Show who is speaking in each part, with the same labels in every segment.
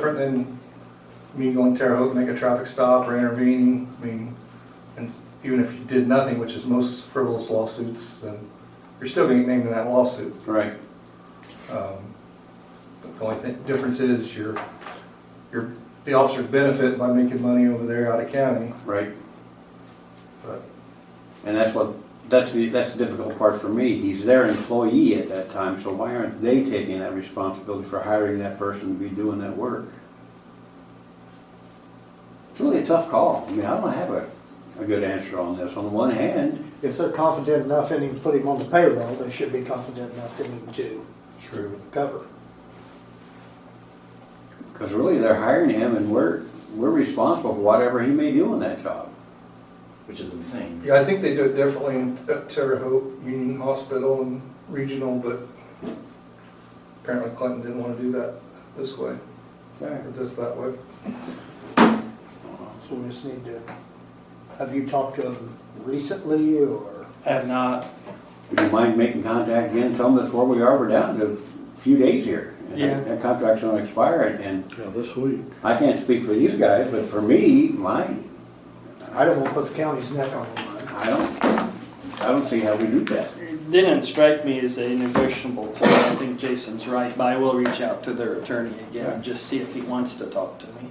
Speaker 1: different than me going to Terre Haute, make a traffic stop or intervening. I mean, and even if you did nothing, which is most frivolous lawsuits, then you're still gonna get named in that lawsuit.
Speaker 2: Right,
Speaker 1: Um, but The only thing, difference is you're, you're, the officers benefit by making money over there out of county,
Speaker 2: right.
Speaker 1: but
Speaker 2: And that's what, that's the, that's the difficult part for me. He's their employee at that time, so why aren't they taking that responsibility for hiring that person to be doing that work? It's really a tough call. I mean, I don't have a, a good answer on this. On the one hand,
Speaker 3: If they're confident enough in him, to put him on the payroll, they should be confident enough in him to
Speaker 1: true.
Speaker 3: cover.
Speaker 2: because really they're hiring him and we're, we're responsible for whatever he may do in that job.
Speaker 4: which is insane.
Speaker 1: Yeah, I think they do it differently in at Terre Haute, Union Hospital and Regional, but apparently Clinton didn't wanna do that this way,
Speaker 2: Okay.
Speaker 1: or just that way.
Speaker 2: Uh-huh.
Speaker 3: So we just need to, have you talked to him recently or?
Speaker 5: I have not,
Speaker 2: Would you mind making contact again, tell them that's where we are, we're down to a few days here. and that-
Speaker 5: Yeah.
Speaker 2: That contract's gonna expire, and- and
Speaker 6: Yeah, this week.
Speaker 2: I can't speak for these guys, but for me, my,
Speaker 3: I don't want to put the county's neck on the line.
Speaker 2: I don't, I don't see how we do that.
Speaker 5: it didn't strike me as a negotiable point, I think Jason's right, but I will reach out to their attorney again, and just see if he wants to talk to me.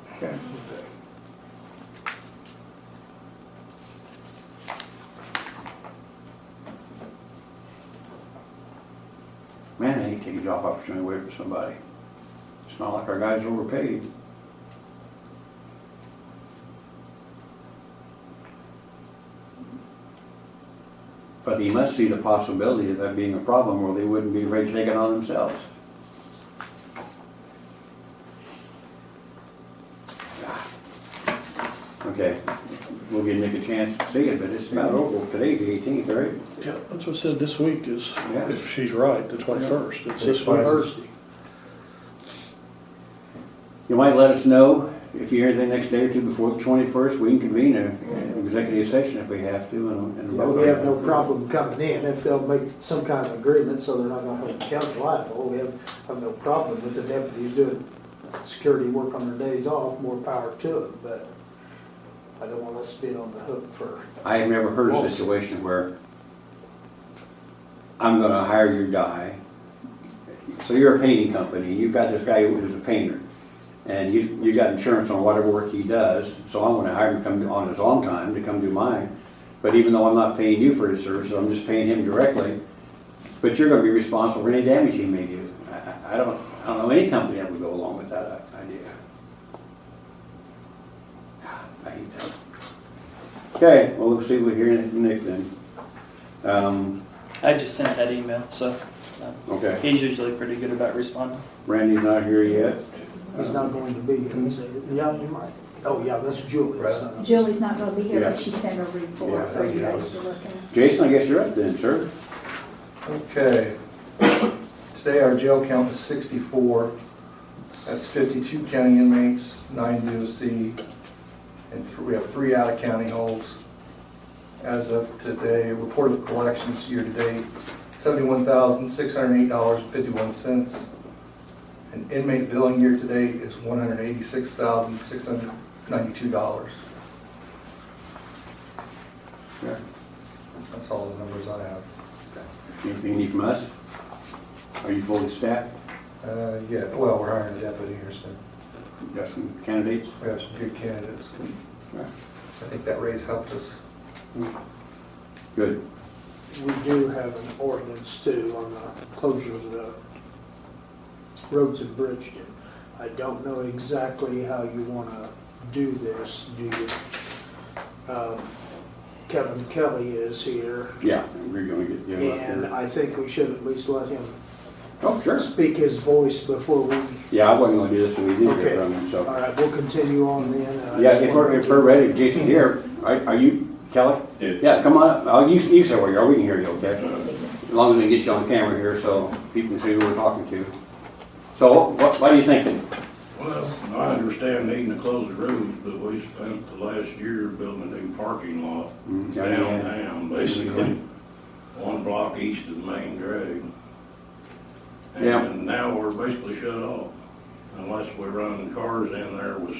Speaker 2: Man, I hate taking job opportunity away from somebody. It's not like our guys are overpaid. But they must see the possibility of that being a problem, or they wouldn't be ready to take it on themselves. Ah. Okay, we'll give Nick a chance to see it, but it's about over, today's the eighteenth, right?
Speaker 6: Yeah, that's what I said, this week is,
Speaker 2: Yeah.
Speaker 6: if she's right, the twenty-first, it's this
Speaker 3: On
Speaker 6: week.
Speaker 3: Thursday.
Speaker 2: You might let us know if you hear anything next day or two before the twenty-first, we can convene a- an executive session if we have to and, and
Speaker 3: Yeah,
Speaker 2: vote on
Speaker 3: we have
Speaker 2: it.
Speaker 3: no problem coming in if they'll make some kind of agreement so they're not gonna hold the county liable. We have, have no problem with the deputies doing security work on their days off, more power to them, but I don't want us being on the hook for,
Speaker 2: I have never heard a situation where I'm gonna hire your guy. So you're a painting company, you've got this guy who's a painter, and you, you got insurance on whatever work he does, so I'm gonna hire him to come do- on his own time to come do mine. But even though I'm not paying you for his services, I'm just paying him directly, but you're gonna be responsible for any damage he may do. I- I, I don't, I don't know any company that would go along with that idea. Ah, I hate that. Okay, well, let's see if we hear anything from Nick then. Um,
Speaker 5: I just sent that email, so uh,
Speaker 2: okay,
Speaker 5: he's usually pretty good about responding.
Speaker 2: Randy's not here yet.
Speaker 3: he's not going to be, he's, yeah, he might. Oh, yeah, that's Uh, Julie. that's not-
Speaker 7: Julie's not gonna be here,
Speaker 2: Yeah.
Speaker 7: but she sent her report
Speaker 2: Yeah,
Speaker 7: for you guys to look at.
Speaker 2: Jason, I guess you're up then, sir.
Speaker 1: Okay. Today, our jail count is 64. That's 52 county inmates, nine DOC, and th- we have three out-of-county holds. As of today, report of collections year-to-date, $71,608.51. And inmate billing year-to-date is $186,692. That's all the numbers I have.
Speaker 2: Anything you need from us? Are you fully staffed?
Speaker 1: Uh, Yeah, well, we're hiring a deputy here soon.
Speaker 2: Got some candidates?
Speaker 1: We have some good candidates.
Speaker 2: Right.
Speaker 1: I think that raise helped us.
Speaker 2: Good.
Speaker 3: We do have an ordinance too on the closures of the roads in Bridgeton. I don't know exactly how you wanna do this, do you? Um, Kevin Kelly is here,
Speaker 2: Yeah, we're gonna get you up
Speaker 3: and
Speaker 2: there.
Speaker 3: I think we should at least let him
Speaker 2: Oh, sure.
Speaker 3: speak his voice before we.
Speaker 2: Yeah, I wasn't gonna do this, so we did
Speaker 3: Okay.
Speaker 2: hear from him,
Speaker 3: All
Speaker 2: so.
Speaker 3: right, we'll continue on then. and I
Speaker 2: Yeah,
Speaker 3: just
Speaker 2: if we're,
Speaker 3: wanna-
Speaker 2: if we're ready, if Jason here, are, are you, Kelly?
Speaker 8: Yeah.
Speaker 2: Yeah, come on, up. Oh, you, you say where you are, we can hear you, okay? As long as we get you on camera here, so people can see who we're talking to. So, what, what are you thinking?
Speaker 8: Well, I understand needing to close the roads, but we spent the last year building a new parking lot
Speaker 2: Mm, yeah, yeah.
Speaker 8: downtown, basically, one block east of the main drag.
Speaker 2: Yeah.
Speaker 8: And now we're basically shut off. I unless we run cars in there with